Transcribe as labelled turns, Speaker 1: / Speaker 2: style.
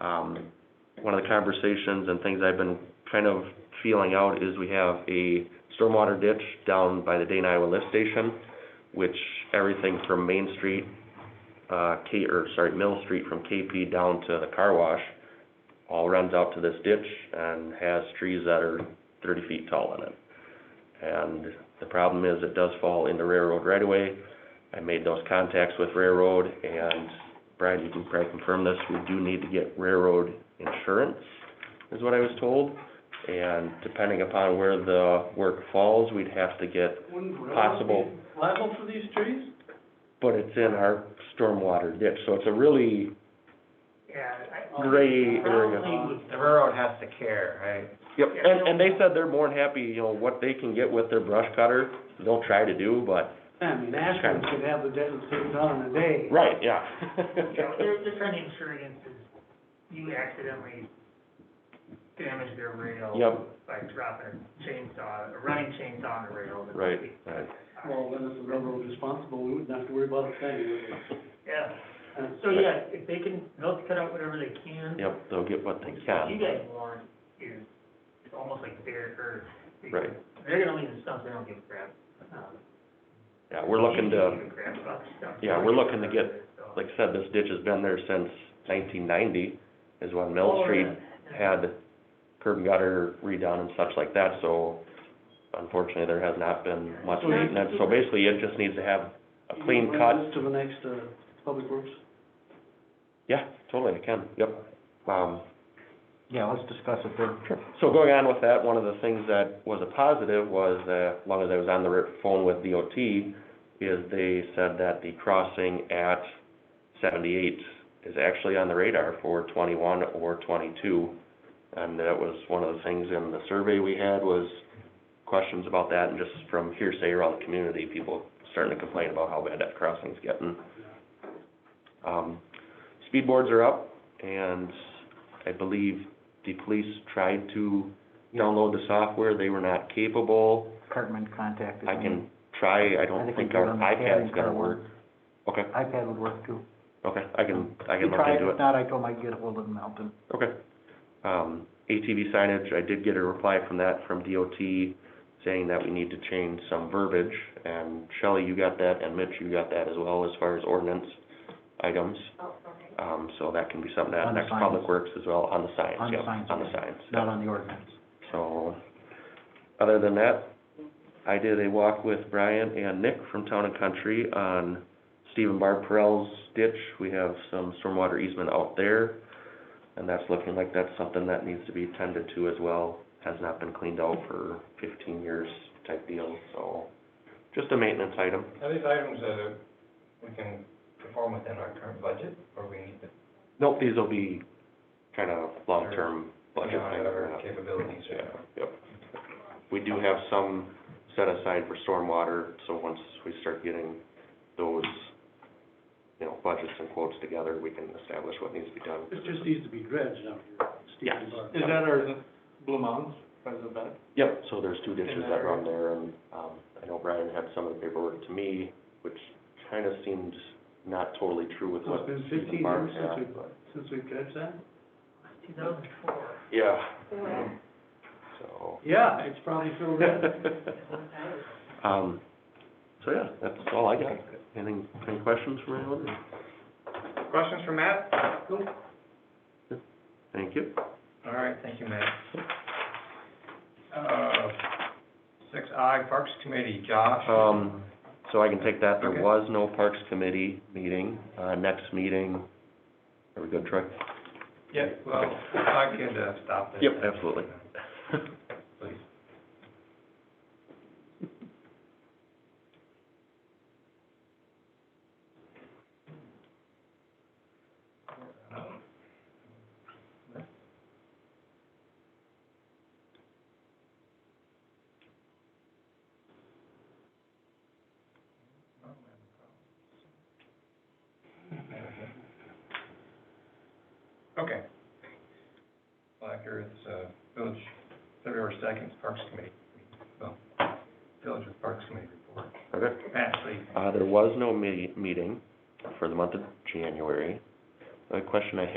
Speaker 1: Um, one of the conversations and things I've been kind of feeling out is we have a stormwater ditch down by the Dane Iowa lift station, which everything from Main Street, uh, K, or sorry, Mill Street from KP down to the car wash, all runs out to this ditch and has trees that are thirty feet tall in it. And the problem is it does fall into railroad right away. I made those contacts with railroad and Brian, you can probably confirm this, we do need to get railroad insurance, is what I was told. And depending upon where the work falls, we'd have to get,
Speaker 2: Wouldn't
Speaker 1: Possible.
Speaker 2: railroad be liable for these trees?
Speaker 1: but it's in our stormwater ditch, so it's a really
Speaker 3: Yeah.
Speaker 1: gray area.
Speaker 3: The railroad has to care, right?
Speaker 1: Yep, and, and they said they're more than happy, you know, what they can get with their brush cutter, they'll try to do, but,
Speaker 2: I mean, Ashland could have the debt taken down in a day.
Speaker 1: right, yeah.
Speaker 3: Yeah, they're, they're trying to insure against this, you accidentally damage their rail.
Speaker 1: Yep,
Speaker 3: By dropping a chainsaw, a running chainsaw on the rail. that-
Speaker 1: right, right.
Speaker 2: Well, then if the railroad was responsible, we wouldn't have to worry about it then. would we?
Speaker 3: Yeah,
Speaker 2: And
Speaker 3: so yeah, if they can, they'll cut out whatever they can.
Speaker 1: Yep, they'll get what they
Speaker 3: What
Speaker 1: can,
Speaker 3: you guys want is, it's almost like their earth.
Speaker 1: right.
Speaker 3: They're gonna leave the stuff, they don't give a crap. Um,
Speaker 1: Yeah, we're looking
Speaker 3: you
Speaker 1: to,
Speaker 3: don't give a crap about the stuff.
Speaker 1: Yeah, we're looking to get,
Speaker 3: So-
Speaker 1: like I said, this ditch has been there since nineteen ninety, is when Mill Street had curb and gutter redone and such like that, so unfortunately, there has not been much
Speaker 2: So you-
Speaker 1: maintenance, so basically, it just needs to have a clean
Speaker 2: you
Speaker 1: cut.
Speaker 2: bring this To the next, uh, public works.
Speaker 1: Yeah, totally, I can, yep. Um,
Speaker 4: Yeah, let's discuss it then.
Speaker 1: So going on with that, one of the things that was a positive was, uh, as long as I was on the r- phone with DOT, is they said that the crossing at seventy-eight is actually on the radar for twenty-one or twenty-two. And that was one of the things in the survey we had was questions about that, and just from hearsay around the community, people starting to complain about how bad that crossing's getting. Um, speed boards are up, and I believe the police tried to download the software, they were not capable.
Speaker 4: Cartman contacted me.
Speaker 1: I can try, I don't think our
Speaker 4: we can do it on the pad
Speaker 1: iPad's
Speaker 4: and
Speaker 1: gonna
Speaker 4: car
Speaker 1: work. Okay,
Speaker 4: iPad would work too.
Speaker 1: okay, I can, I
Speaker 4: He
Speaker 1: can look
Speaker 4: tried,
Speaker 1: into
Speaker 4: if
Speaker 1: it.
Speaker 4: not, I told him I'd get ahold of Melton.
Speaker 1: Okay. Um, ATV signage, I did get a reply from that, from DOT, saying that we need to change some verbiage. And Shelley, you got that, and Mitch, you got that as well, as far as ordinance items. Um, so that can be something that
Speaker 4: On the
Speaker 1: next
Speaker 4: signs.
Speaker 1: Public Works as well, on the signs,
Speaker 4: On the
Speaker 1: yep,
Speaker 4: signs,
Speaker 1: on the
Speaker 4: okay.
Speaker 1: signs.
Speaker 4: Not on the ordinance.
Speaker 1: So, other than that, I did a walk with Brian and Nick from Town and Country on Steve and Barb Perrell's ditch. We have some stormwater easement out there, and that's looking like that's something that needs to be tended to as well. Has not been cleaned out for fifteen years type deal, so just a maintenance item.
Speaker 5: Are these items uh, that we can perform within our current budget, or we need to?
Speaker 1: Nope, these will be kind of long-term budget
Speaker 5: beyond
Speaker 1: things.
Speaker 5: Our capabilities.
Speaker 1: Yeah, yep. We do have some set aside for stormwater, so once we start getting those, you know, budgets and quotes together, we can establish what needs to be done.
Speaker 2: This just needs to be dredged out here.
Speaker 1: Yeah.
Speaker 2: Is that our Blue Mounds, right the back?
Speaker 1: Yep, so there's two ditches
Speaker 2: And
Speaker 1: that
Speaker 2: there-
Speaker 1: run there, and, um, I know Brian had some of the paperwork to me, which kind of seemed not totally true with
Speaker 2: Well,
Speaker 1: what
Speaker 2: it's been
Speaker 1: Steve
Speaker 2: 15
Speaker 1: and Barb
Speaker 2: years since
Speaker 1: had,
Speaker 2: we-
Speaker 1: but-
Speaker 2: Since we've dredged that?
Speaker 3: Two thousand four.
Speaker 1: Yeah. So.
Speaker 2: Yeah, it's probably filled in.
Speaker 1: Um, so yeah, that's all I got. Anything, any questions from anyone?
Speaker 5: Questions for Matt?
Speaker 1: Thank you.
Speaker 5: All right, thank you, Matt. Uh, six I, Parks Committee, Josh?
Speaker 1: Um, so I can take that, there
Speaker 5: Okay.
Speaker 1: was no Parks Committee meeting, uh, next meeting, are we good, Troy?
Speaker 5: Yeah, well, if I could, uh, stop this.
Speaker 1: Yep, absolutely.
Speaker 5: Please. Okay. Black Earth, uh, Village, February second, Parks Committee, well, Village with Parks Committee report.
Speaker 1: Okay.
Speaker 5: Ashley,
Speaker 1: Uh, there was no me- meeting for the month of January. The question I